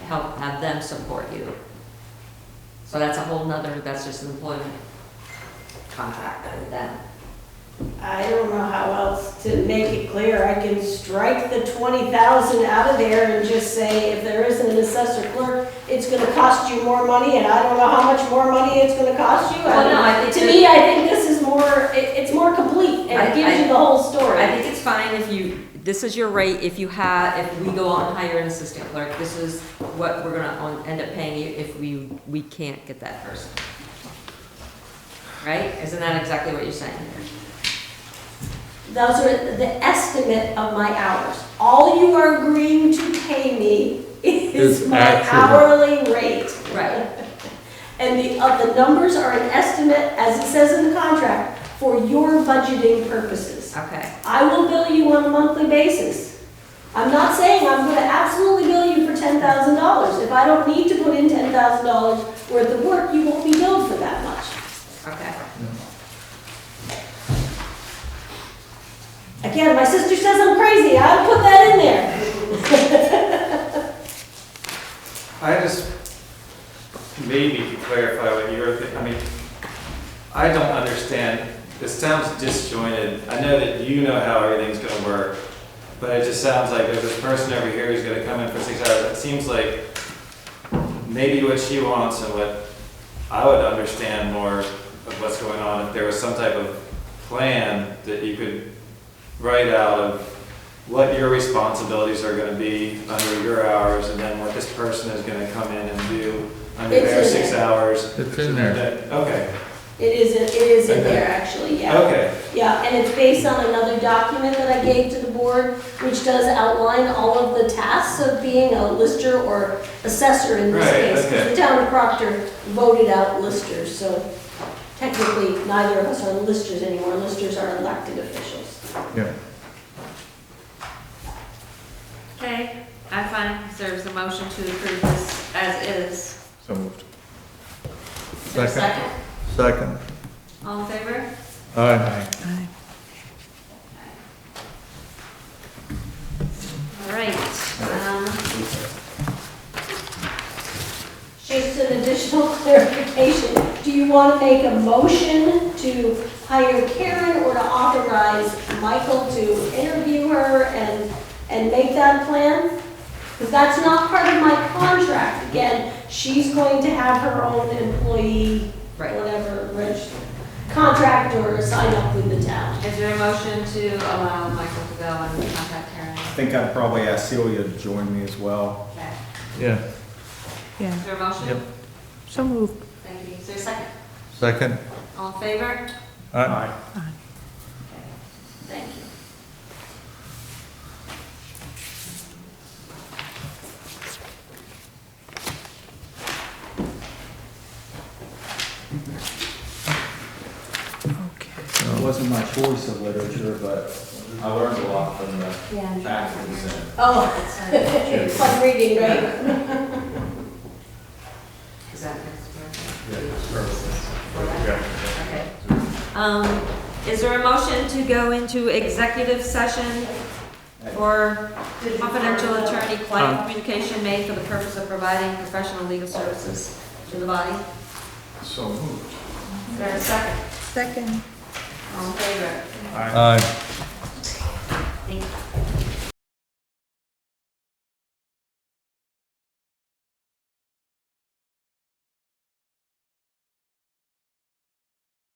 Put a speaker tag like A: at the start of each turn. A: help, have them support you. So that's a whole nother, that's just an employment contract with them.
B: I don't know how else to make it clear. I can strike the twenty thousand out of there and just say, if there isn't an assessor clerk, it's gonna cost you more money, and I don't know how much more money it's gonna cost you. I
A: Well, no,
B: don't-
A: I think
B: To
A: that-
B: me, I think this is more, it, it's more complete, and
A: I-
B: it gives
A: I-
B: you the whole
A: I
B: story.
A: think it's fine if you, this is your rate, if you have, if we go out and hire an assistant clerk, this is what we're gonna on- end up paying you if we, we can't get that person. Right? Isn't that exactly what you're saying?
B: Those are the estimate of my hours. All you are agreeing to pay me is
C: Is
B: my
C: actual.
B: hourly rate.
A: Right.
B: And the, uh, the numbers are an estimate, as it says in the contract, for your budgeting purposes.
A: Okay,
B: I will bill you on a monthly basis. I'm not saying I'm gonna absolutely bill you for ten thousand dollars. If I don't need to put in ten thousand dollars worth of work, you won't be billed for that much.
A: okay.
B: Again, my sister says I'm crazy, I'll put that in there.
D: I just, maybe to clarify what you were thinking, I mean, I don't understand, this sounds disjointed. I know that you know how everything's gonna work, but it just sounds like there's this person over here who's gonna come in for six hours. It seems like maybe what she wants and what I would understand more of what's going on, if there was some type of plan that you could write out of what your responsibilities are gonna be under your hours, and then what this person is gonna come in and do under
B: It's
D: their
B: in
D: six
B: there.
D: hours.
C: It's in there.
D: Okay,
B: It is, in- it is in there, actually, yeah.
D: okay.
B: Yeah, and it's based on another document that I gave to the board, which does outline all of the tasks of being a lister or assessor in this
D: Right,
B: case. 'cause
D: okay.
B: The town of Proctor voted out listers, so technically neither of us are listers anymore. Listers are elected officials.
C: Yeah.
E: Okay, I find there's a motion to approve this as is.
C: So moved.
E: Is there a
C: Second.
E: second?
C: Second.
E: All in favor?
C: Aye.
E: All right, um,
B: Just an additional clarification, do you want to make a motion to hire Karen or to authorize Michael to interview her and, and make that plan? Because that's not part of my contract. Again, she's going to have her own employee,
A: Right.
B: whatever, register, contract or sign up with the town.
E: is there a motion to allow Michael to go and contact Karen?
F: I think I'd probably ask Celia to join me as well.
E: Okay,
C: Yeah.
E: is there a motion?
C: Yep.
G: So moved.
E: Thank you, is there a second?
C: Second.
E: All in favor?
C: Aye.
E: Thank you.
F: It wasn't my choice of literature, but I learned a lot from the
E: Yeah.
F: actions and
B: Oh, it's fun reading, right?
A: Is that next? Yeah. Um, is there a motion to go into executive session for
E: Confidential attorney-client communication made for the purpose of providing professional legal services to the body.
F: so moved.
E: Is there a second?
G: Second.
E: All in favor?
C: Aye.
E: Thank you.